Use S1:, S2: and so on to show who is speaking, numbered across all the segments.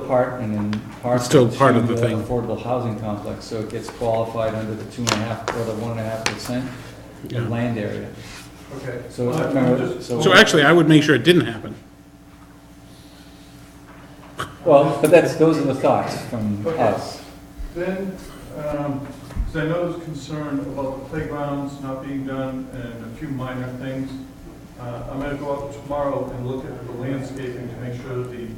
S1: Part and then part.
S2: It's still part of the
S1: to
S2: thing.
S1: Affordable housing complex, so it gets qualified under the two and a half or the one and a half percent
S2: Yeah.
S1: of land area.
S3: Okay. Uh,
S1: So,
S3: Well, I'm
S1: remember,
S3: just-
S1: so.
S2: So actually, I would make sure it didn't happen.
S1: Well, but that's, those are the thoughts from
S3: Okay.
S1: us.
S3: Then, because I know there's concern about the playgrounds not being done and a few minor things. Uh, I'm going to go out tomorrow and look at the landscaping to make sure that the,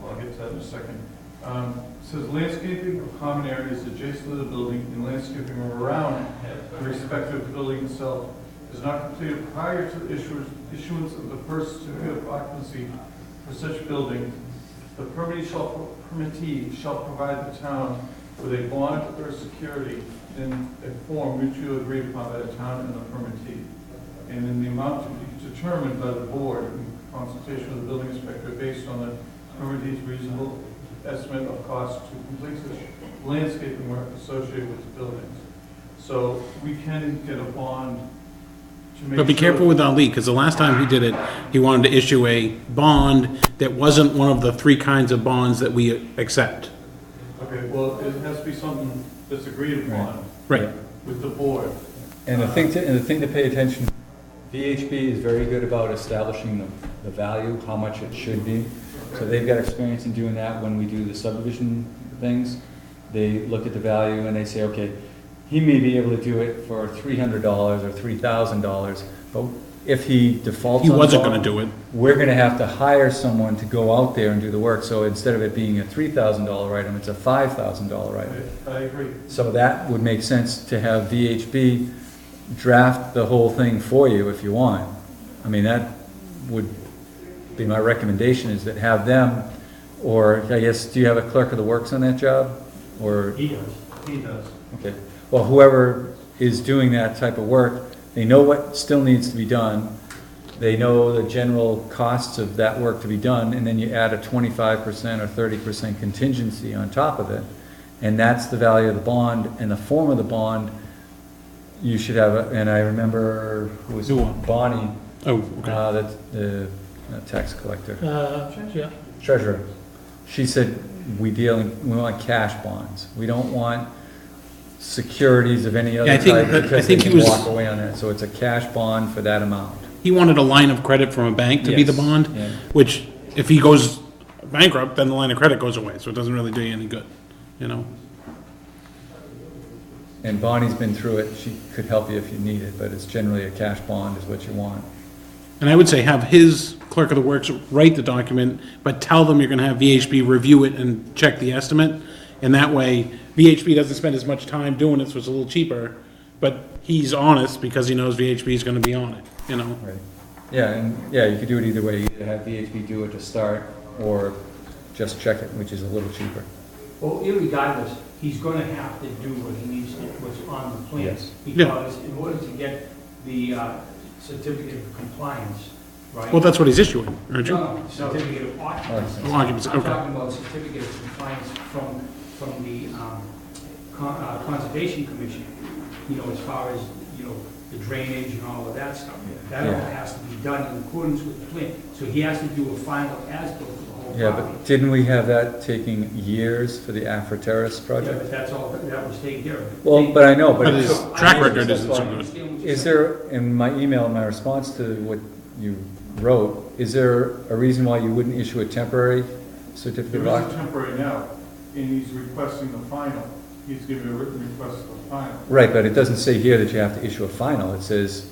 S3: well, I'll get to that in a second. Um, it Says landscaping of common areas adjacent to the building and landscaping around the respective building itself is not completed prior to the issuance, issuance of the first certificate of occupancy for such building. The permittee shall, permittee shall provide the town with a bond or security in a form mutually agreed upon by the town and the permittee, and in the amount to be determined by the board in consultation with the building inspector based on the permittee's reasonable estimate of cost to complete such landscaping work associated with the buildings. So we can get a bond to make sure.
S2: But be careful with Ali, because the last time he did it, he wanted to issue a bond that wasn't one of the three kinds of bonds that we accept.
S3: Okay, well, it has to be something that's agreed upon
S2: Right.
S3: with the board.
S1: And the thing to, and the thing to pay attention, VHB is very good about establishing the, the value, how much it should be. So they've got experience in doing that when we do the subdivision things. They look at the value and they say, okay, he may be able to do it for three hundred dollars or three thousand dollars, but if he defaults
S2: He
S1: on the
S2: wasn't
S1: bond,
S2: gonna do it.
S1: We're gonna have to hire someone to go out there and do the work, so instead of it being a three thousand dollar item, it's a five thousand dollar
S3: I
S1: item.
S3: I agree.
S1: So that would make sense to have VHB draft the whole thing for you if you want. I mean, that would be my recommendation is that have them, or I guess, do you have a clerk of the works on that job? Or,
S3: He does. He does.
S1: okay, well, whoever is doing that type of work, they know what still needs to be done. They know the general costs of that work to be done, and then you add a twenty-five percent or thirty percent contingency on top of it. And that's the value of the bond, and the form of the bond, you should have, a- and I remember, who was
S2: Who won?
S1: Bonnie,
S2: Oh, okay.
S1: uh, that, the uh, tax collector,
S4: Uh, yeah,
S1: treasurer. She said, we deal, in- we want cash bonds, we don't want securities of any
S2: Yeah, I
S1: other
S2: think-
S1: type,
S2: I- I
S1: because they
S2: think he
S1: can
S2: was-
S1: walk away on that, so it's a cash bond for that amount.
S2: He wanted a line of credit from a bank to be the
S1: Yes,
S2: bond,
S1: yeah.
S2: which if he goes bankrupt, then the line of credit goes away, so it doesn't really do you any good, you know?
S1: And Bonnie's been through it, she could help you if you need it, but it's generally a cash bond is what you want.
S2: And I would say have his clerk of the works write the document, but tell them you're gonna have VHB review it and check the estimate. And that way, VHB doesn't spend as much time doing it, so it's a little cheaper, but he's honest because he knows VHB is gonna be on it, you know?
S1: Right. Yeah, and, yeah, you could do it either way, either have VHB do it to start, or just check it, which is a little cheaper.
S4: well, irregardless, he's gonna have to do what he needs to, what's on the plan.
S1: Yes.
S2: Yeah.
S4: Because in order to get the uh, certificate of compliance, right?
S2: Well, that's what he's issuing, aren't you?
S4: No, no, certificate of occupancy.
S2: Oh, occupancy,
S4: I'm
S2: okay.
S4: talking about certificate of compliance from, from the um, Con- uh, Conservation Commission, you know, as far as, you know, the drainage and all of that stuff. That all
S1: Yeah.
S4: has to be done in accordance with the plan. So he has to do a final as-built for the whole property.
S1: Yeah, but didn't we have that taking years for the Afro Terrace
S4: Yeah,
S1: project?
S4: but that's all, that was taken care of.
S1: Well, but I know, but
S2: But
S1: it
S2: his
S1: took-
S2: track record
S1: That's
S2: isn't
S1: why-
S2: so good.
S1: Is there, in my email, my response to what you wrote, is there a reason why you wouldn't issue a temporary certificate
S3: There
S1: of
S3: is a
S1: occupancy?
S3: temporary now, and he's requesting the final. He's giving a written request for the final.
S1: Right, but it doesn't say here that you have to issue a final, it says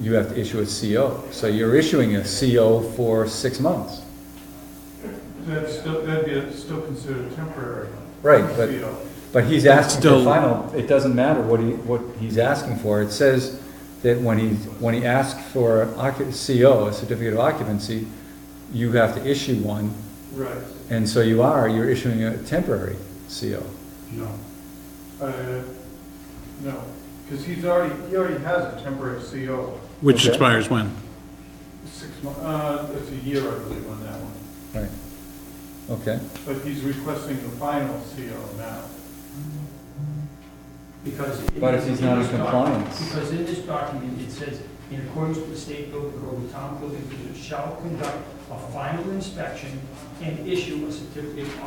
S1: you have to issue a CO. So you're issuing a CO for six months.
S3: That's still, that'd be still considered temporary.
S1: Right, but
S3: You know,
S1: But he's asking for
S2: Still-
S1: final, it doesn't matter what he, what he's asking for, it says that when he, when he asks for occu- CO, a certificate of occupancy, you have to issue one,
S3: Right.
S1: and so you are, you're issuing a temporary CO.
S4: No.
S3: Uh, No, because he's already, he already has a temporary CO,
S2: Which
S1: Okay.
S2: expires when?
S3: six months, uh, it's a year, I believe, on that one.
S1: Right. Okay,
S3: But he's requesting the final CO now.
S4: Because. in
S1: But if
S4: this-
S1: he's not in
S4: this doc-
S1: compliance.
S4: Because in this document, it says, in accordance with the state building code, the town building commission shall conduct a final inspection and issue a certificate of